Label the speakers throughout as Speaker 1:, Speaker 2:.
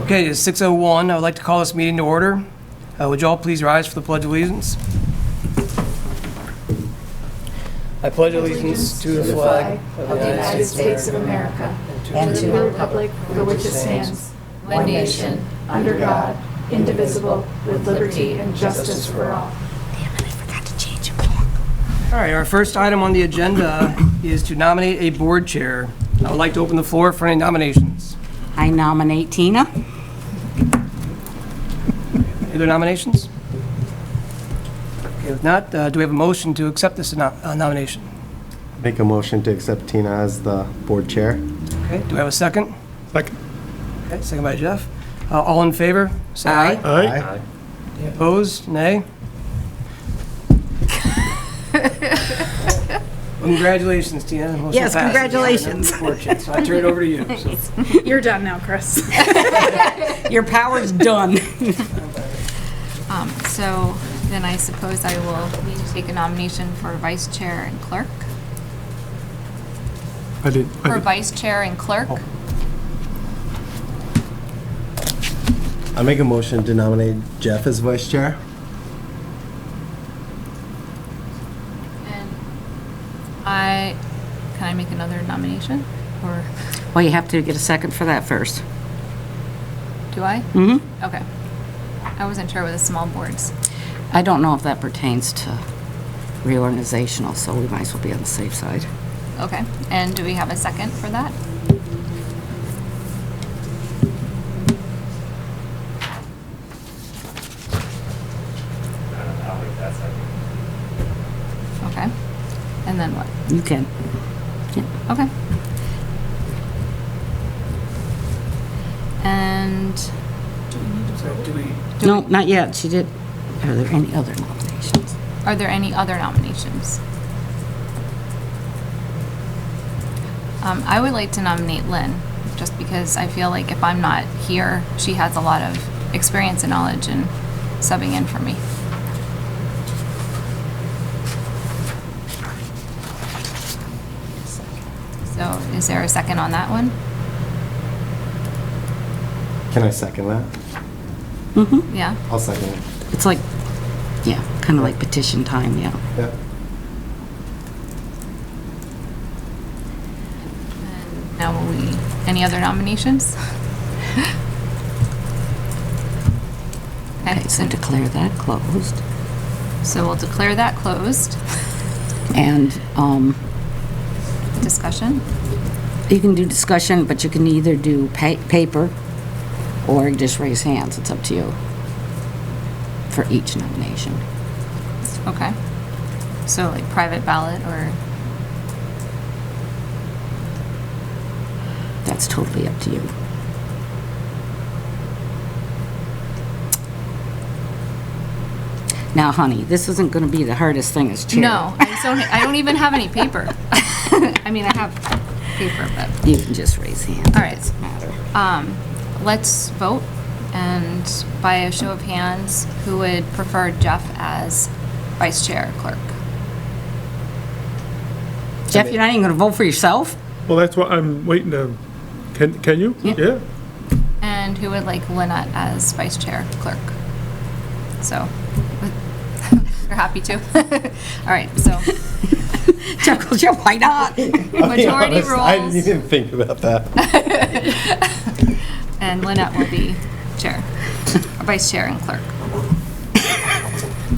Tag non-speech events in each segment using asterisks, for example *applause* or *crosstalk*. Speaker 1: Okay, it's 6:01. I would like to call this meeting to order. Uh, Would you all please rise for the Pledge of Allegiance? I pledge allegiance to the flag of the United States.
Speaker 2: of America
Speaker 3: and
Speaker 2: to the republic for which it stands,
Speaker 3: one nation,
Speaker 2: under God, indivisible, with liberty and justice for all.
Speaker 1: All right, our first item on the agenda is to nominate a board chair. I would like to open the floor for any nominations.
Speaker 3: I nominate Tina.
Speaker 1: Any other nominations? Okay, if not, uh, do we have a motion to accept this no- uh, nomination?
Speaker 4: Make a motion to accept Tina as the board chair.
Speaker 1: Okay, do we have a second?
Speaker 5: Second.
Speaker 1: Okay, second by Jeff. Uh, All in favor? Say aye.
Speaker 5: Aye.
Speaker 1: Opposed?
Speaker 3: *laughs*
Speaker 1: Nay? Congratulations, Tina. Motion
Speaker 3: Yes,
Speaker 1: passes.
Speaker 3: congratulations.
Speaker 1: Fortune. So I turn it over to you. So,
Speaker 6: You're done now, Chris.
Speaker 3: Your power's done.
Speaker 7: Um, So then I suppose I will need to take a nomination for vice chair and clerk.
Speaker 5: I did,
Speaker 7: For
Speaker 5: I did.
Speaker 7: vice chair and clerk,
Speaker 4: I make a motion to nominate Jeff as vice chair.
Speaker 7: and I, can I make another nomination? Or
Speaker 3: *laughs* Well, you have to get a second for that first.
Speaker 7: do I? Mm-hmm. Okay. I wasn't sure with the small boards.
Speaker 3: I don't know if that pertains to reorganizational, so we might as well be on the safe side.
Speaker 7: Okay, and do we have a second for that? Okay, and then what?
Speaker 3: You can.
Speaker 7: Okay. And
Speaker 1: do we-
Speaker 3: No, not yet. She did. Are there any other nominations?
Speaker 7: are there any other nominations? Um, I would like to nominate Lynn, just because I feel like if I'm not here, she has a lot of experience and knowledge in subbing in for me. So is there a second on that one?
Speaker 4: Can I second that?
Speaker 3: Mm-hmm.
Speaker 7: Yeah?
Speaker 4: I'll second it.
Speaker 3: It's like, yeah, kind of like petition time, yeah.
Speaker 4: Yep.
Speaker 7: Now will we, any other nominations? *laughs* Okay,
Speaker 3: Okay, so declare that closed.
Speaker 7: so we'll declare that closed.
Speaker 3: And um,
Speaker 7: Discussion?
Speaker 3: you can do discussion, but you can either do pa- paper or just raise hands. It's up to you for each nomination.
Speaker 7: Okay. So like private ballot or,
Speaker 3: That's totally up to you. Now, honey, this isn't going to be the hardest thing as chair.
Speaker 7: no, I just don't, I don't even have any paper. *laughs* I mean, I have paper, but,
Speaker 3: *laughs* You can just raise hand.
Speaker 7: all right.
Speaker 3: Doesn't matter.
Speaker 7: Um, let's vote and by a show of hands, who would prefer Jeff as vice chair clerk?
Speaker 3: Jeff, you're not even going to vote for *laughs* yourself?
Speaker 5: Well, that's what I'm waiting to, can, can you?
Speaker 3: Yeah.
Speaker 7: And who would like Lynette as vice chair clerk? So, *laughs* you're happy to? *laughs* All right, so
Speaker 3: Jeff goes, yeah, why *laughs* not?
Speaker 7: majority
Speaker 4: I didn't
Speaker 7: rules
Speaker 4: even think about that.
Speaker 7: and Lynette will be chair, or vice chair and clerk. All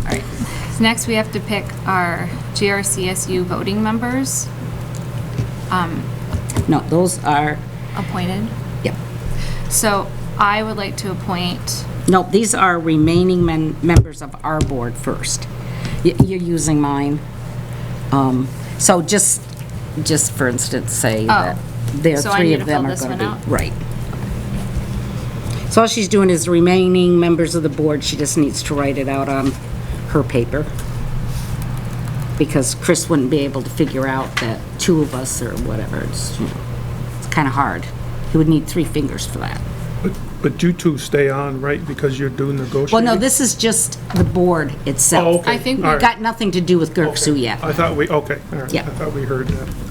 Speaker 7: right, so next we have to pick our GRCSU voting members
Speaker 3: No, those are,
Speaker 7: appointed.
Speaker 3: yep.
Speaker 7: So I would like to appoint,
Speaker 3: No, these are remaining men, members of our board first. Y- You're using mine. Um, So just, just for instance, say that there,
Speaker 7: Oh, so I
Speaker 3: three
Speaker 7: need
Speaker 3: of
Speaker 7: to
Speaker 3: them
Speaker 7: fill
Speaker 3: are
Speaker 7: this
Speaker 3: going
Speaker 7: one
Speaker 3: to
Speaker 7: out?
Speaker 3: be. Right. So all she's doing is remaining members of the board, she just needs to write it out on her paper. Because Chris wouldn't be able to figure out that two of us or whatever, it's, you know, it's kind of hard. He would need three fingers for that.
Speaker 5: But, but you two stay on, right, because you're doing
Speaker 3: Well,
Speaker 5: negotiating?
Speaker 3: no, this is just the board
Speaker 5: Oh,
Speaker 3: itself.
Speaker 5: okay.
Speaker 7: I think we
Speaker 5: all right.
Speaker 3: Got nothing to do with Gerksu yet.
Speaker 5: I thought we, okay, all right.
Speaker 3: Yeah.
Speaker 5: I thought we heard that.